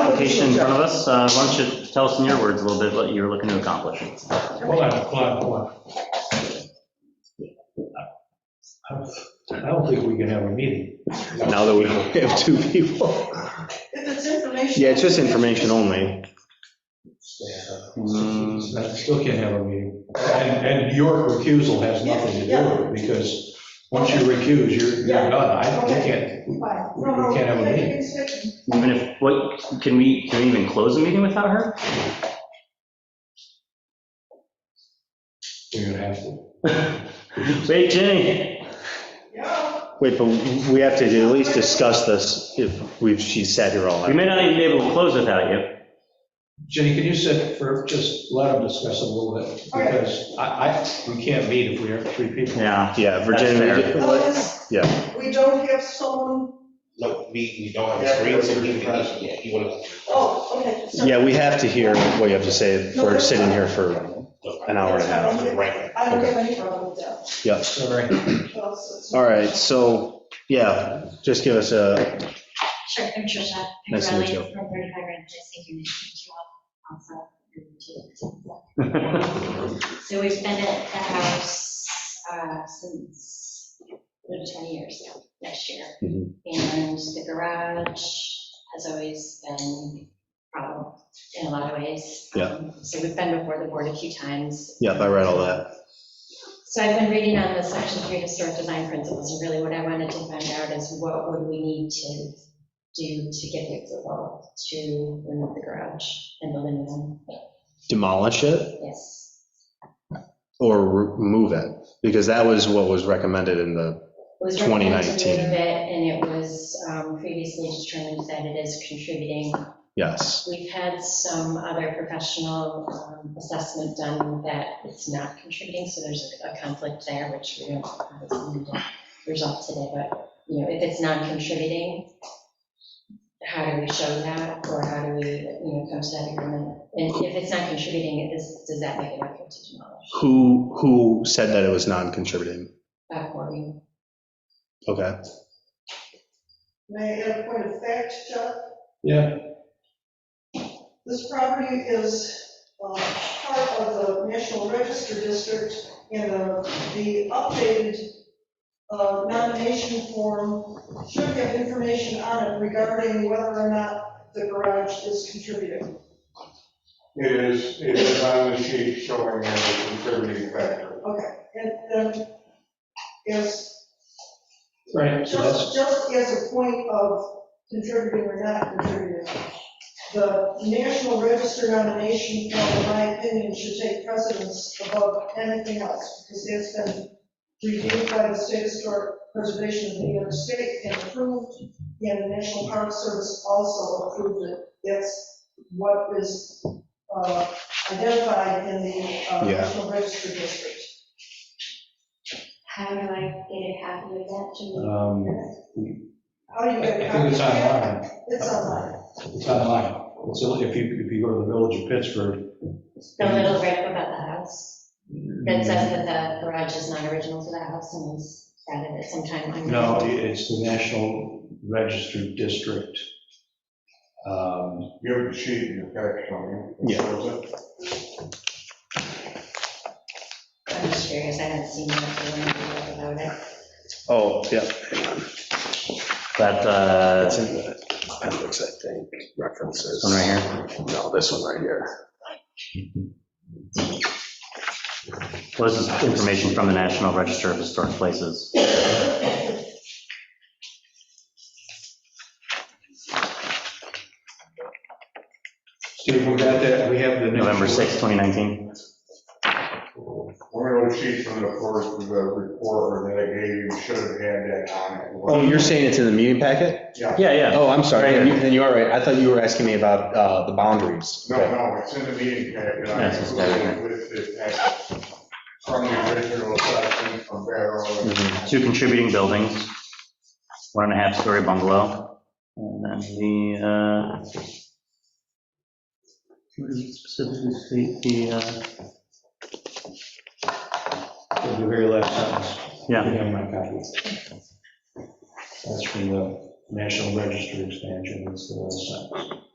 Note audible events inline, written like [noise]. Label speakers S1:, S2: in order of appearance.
S1: application in front of us. Uh, Why don't you tell us in your words a little bit what you're looking to accomplish?
S2: Hold on, hold on, hold on. I don't think we can have a meeting.
S3: Now that we [laughs] have two people.
S4: If it's information.
S3: Yeah, it's just information only.
S1: Mm.
S2: I still can't have a meeting. And, and your recusal has nothing to do with it, because once you recuse, you're, you're done. I, we can't, we
S4: Right. No, no,
S2: we can't have a
S4: make
S2: meeting.
S4: it specific.
S1: Even if, what, can we, can we even close a meeting without her?
S2: You're gonna have to.
S1: Wait, Jenny.
S4: Yeah.
S3: Wait, but we have to at least discuss this if we've, she's sat here all
S1: We
S3: night.
S1: may not even be able to close without you.
S2: Jenny, can you sit for, just let them discuss it a little bit, because I, I, we can't meet if we have three people.
S1: Yeah. [laughs]
S3: Yeah, Virginia,
S1: That's
S3: we- what-
S4: Unless
S3: yeah,
S4: we don't have someone,
S5: No, we, we don't have
S6: Yeah,
S5: a screen, so
S6: we're
S5: he,
S6: present.
S5: he- yeah, he would have.
S4: oh, okay. so-
S3: yeah, we have to hear what you have to say. If We're sitting here for an hour and a half.
S5: Right.
S4: I don't have any problem with that.
S3: Yeah.
S2: Sorry.
S4: Well, so it's-
S3: All right, so, yeah, just give us a,
S7: Sure, I'm Trisha.
S3: Nice to meet
S7: Pirelli
S3: you.
S7: From 35 Grand Place, thank you, nice to meet you all. Also, good to meet you. So we've been at the house uh, since over 10 years now, next year.
S3: Mhm.
S7: And the garage has always been a problem in a lot of ways.
S3: Yeah.
S7: Um, So we've been before the board a few times.
S3: yeah, I read all that.
S7: So I've been reading on the section three historic design principles, and really what I wanted to find out is what would we need to do to get the approval to remove the garage and the living room?
S3: Demolish it
S7: Yes.
S3: or remove it? Because that was what was recommended in the,
S7: It was recommended to
S3: 2019.
S7: remove it, And it was um, previously determined that it is contributing
S3: yes,
S7: We've had some other professional um, assessment done that it's not contributing, so there's a conflict there, which we don't obviously need to resolve today, but, you know, if it's non-contributing, how do we show that, or how do we, you know, come to that agreement? And if it's not contributing, is, does that make it okay to demolish?
S3: who, who said that it was non-contributing?
S7: Back warning.
S3: Okay,
S4: May I add a point of fact, Chuck?
S2: Yeah,
S4: This property is uh, part of the National Register District, and uh, the updated uh, nomination form should have information on it regarding whether or not the garage is contributing.
S6: It is, it is on the sheet showing as a contributing factor.
S4: Okay, and then, yes,
S2: right, so that's,
S4: just, just as a point of contributing or not contributing, the National Register nomination form, in my opinion, should take precedence above anything else, because it's been reviewed by the State Historic Preservation of New York State and approved, and the National Park Service also approved it. That's what is uh, identified in the uh,
S3: Yeah.
S4: National Register District.
S7: How do I get a copy of that, Jimmy?
S2: um,
S4: How do you
S2: I
S4: get a
S2: I think it's
S4: copy?
S2: online.
S4: It's online.
S2: It's online. So if you, if you go to the Village of Pittsburgh.
S7: The little rip about the house? That says that the garage is not original to the house and was added at some time. I'm-
S2: No, it's the National Registered District. Um,
S6: You have the sheet in your packet, don't you?
S3: Yeah.
S6: Was it?
S7: I'm just curious, I haven't seen that for one year about it.
S3: oh, yeah,
S1: That, uh,
S3: that's
S1: this
S3: in the appendix, I think, references.
S1: one right here,
S3: No, this one right here.
S1: Well, this is information from the National Register of Historic Places.
S2: Steve, we got that, we have the. next-
S1: November 6, 2019.
S6: One of those sheets from the first, the report that I gave you should have had that on it.
S3: Oh, you're saying it's in the meeting packet?
S1: Yeah, yeah.
S3: Oh, I'm sorry,
S1: Right here.
S3: then you- then you are right, I thought you were asking me about uh, the boundaries.
S6: No,
S3: Okay.
S6: no, it's in the meeting packet. I
S1: That's what's there.
S6: included With the packet from the original section from Barrow.
S3: Mhm.
S1: two contributing buildings, one and a half story bungalow, and then the, uh, what is it specifically, the, uh,
S2: The very last sentence.
S1: yeah,
S2: We have my copy. That's from the National Register expansion, that's the last sentence.